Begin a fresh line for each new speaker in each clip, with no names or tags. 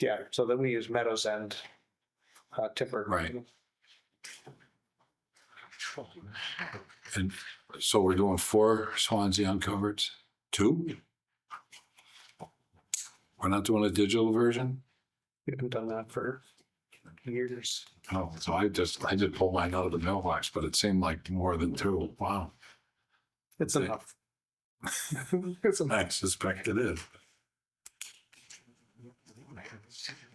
Yeah, so then we use Meadows End uh, tipper.
Right. And so we're doing four Swansea uncovered, two? We're not doing a digital version?
We haven't done that for years.
Oh, so I just, I just pulled mine out of the mailbox, but it seemed like more than two. Wow.
It's
Okay.
enough. It's enough.
I suspect it is.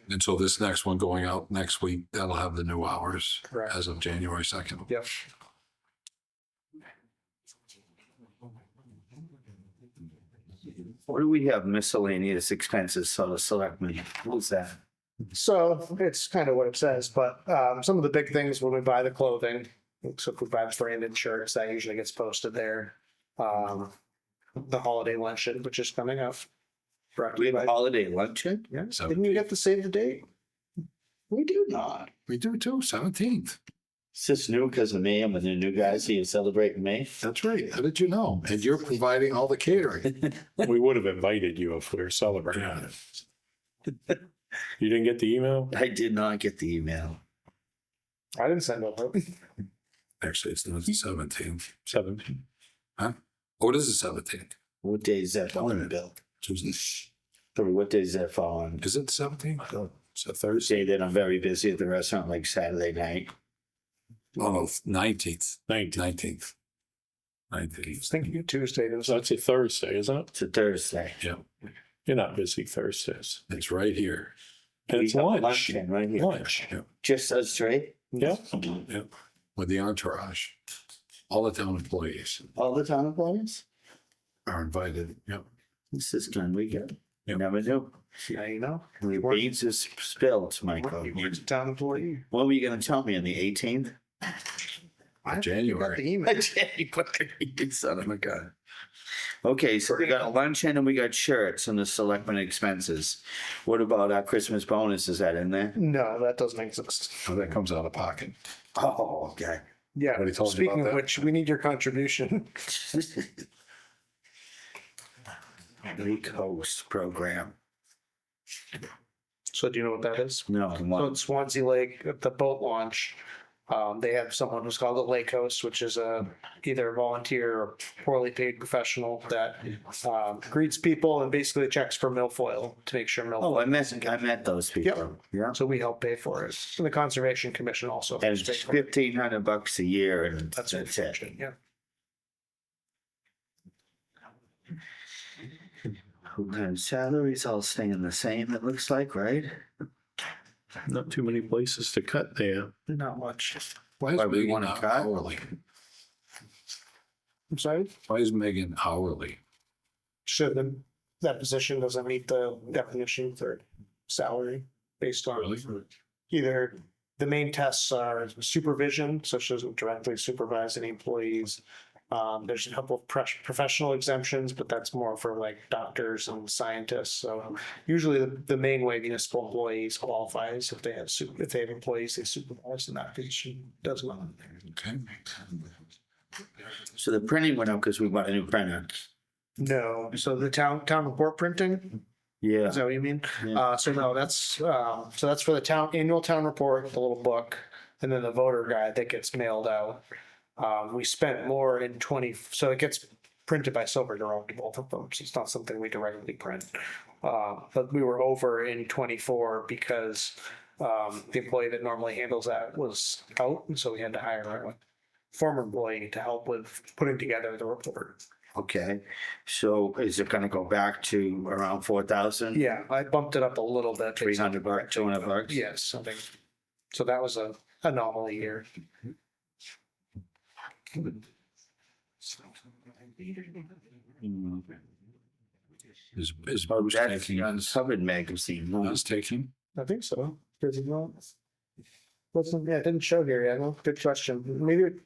And so this next one going out next week, that'll have the new hours
Correct.
as of January second.
Yep.
Or do we have miscellaneous expenses, so the selectmen, what's that?
So it's kind of what it says, but um, some of the big things when we buy the clothing, so if we buy the branded shirts, that usually gets posted there. Um, the holiday luncheon, which is coming up. Right.
We have a holiday luncheon?
Yeah,
So-
didn't you get to save the date? We do not.
We do too, seventeenth.
Is this new because of me? I'm with the new guys here celebrating me.
That's right. How did you know? And you're providing all the catering.
We would have invited you if we were celebrating.
Yeah.
You didn't get the email?
I did not get the email.
I didn't send over.
Actually, it's not the seventeenth.
Seven.
What is the seventeenth?
What day is that
Tell me.
falling, Bill?
Tuesday.
Or what day is that falling?
Is it the seventeenth? It's a Thursday.
Thursday that I'm very busy at the restaurant, like Saturday night.
Oh, no, nineteenth,
Nineteen.
nineteenth.
I
Nineteenth.
was thinking of Tuesday. It was
So that's a Thursday, isn't it?
It's a Thursday.
You're not busy Thursdays.
It's right here.
And it's
We have
lunch.
luncheon Right here.
Lunch.
Yeah.
Just us three?
Yeah.
With the entourage. All the town employees
All the town employees?
are invited. Yep.
This is done weekend.
Yep.
Never knew.
yeah, you know.
The
weren't-
beans is spilled,
uh,
Michael.
You were a town employee.
What were you gonna tell me on the eighteenth?
I Got
January.
the email.
Son
Oh,
of a gun. Okay, so we got luncheon and we got shirts and the selectmen expenses. What about our Christmas bonus? Is that in there?
No, that doesn't exist.
So that comes out of pocket.
Oh, okay.
Yeah.
Already told you
Speaking
about
of
that.
which, we need your contribution.
Lake Coast program.
So do you know what that is?
No,
So
one,
at Swansea Lake, at the boat launch, um, they have someone who's called the Lake Host, which is a either a volunteer or poorly paid professional that um, greets people and basically checks for milfoil to make sure
oh, I
milfoil.
met, I met those people. Yeah.
Oh.
So we help pay for it. And the Conservation Commission also.
And it's
pays for it.
fifteen hundred bucks a year and
That's
that's it.
Yeah.
And Salaries all staying the same, it looks like, right?
Not too many places to cut there.
Not much.
Why is
Why we
Megan
wanna
not
cut?
hourly?
I'm sorry?
Why is Megan hourly?
So the, that position doesn't meet the definition for salary based on
Really?
either the main tests are supervision, so she doesn't directly supervise any employees. Um, there's a couple of pres- professional exemptions, but that's more for like doctors and scientists. So usually the, the main way municipal employees qualify is if they have, su- if they have employees they supervise and that position does not.
Okay.
So the printing went up because we bought a new printer.
No, so the town, town report printing,
Yeah.
is that what you mean?
Yeah.
Uh, so no, that's, um, so that's for the town, annual town report, the little book, and then the voter guide that gets mailed out. Um, we spent more in twenty, so it gets printed by Silver Dome to both of them, so it's not something we directly print. Uh, but we were over in twenty-four because, um, the employee that normally handles that was out, and so we had to hire a former employee to help with putting together the report.
Okay, so is it gonna go back to around four thousand?
Yeah, I bumped it up a little bit.
Three hundred bucks, two hundred bucks?
Yes, something. So that was a anomaly year.
Hmm.
Is, is
Oh,
Bruce
that's
taking
the
us?
uncovered magazine. huh?
Us taking?
I think so. Does it not? Listen, yeah, it didn't show here yet. Well, Good question. Maybe it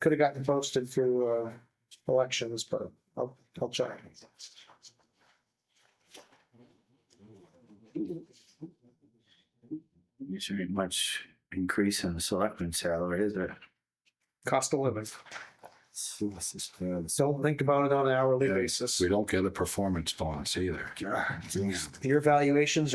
could have gotten posted through uh elections, but I'll I'll check.
There's very much increase in the selectman salary, is there?
Cost of living.
This is bad.
Don't think about it on an hourly
Yeah,
basis.
We don't get a performance bonus either.
God, damn.
Your valuations are.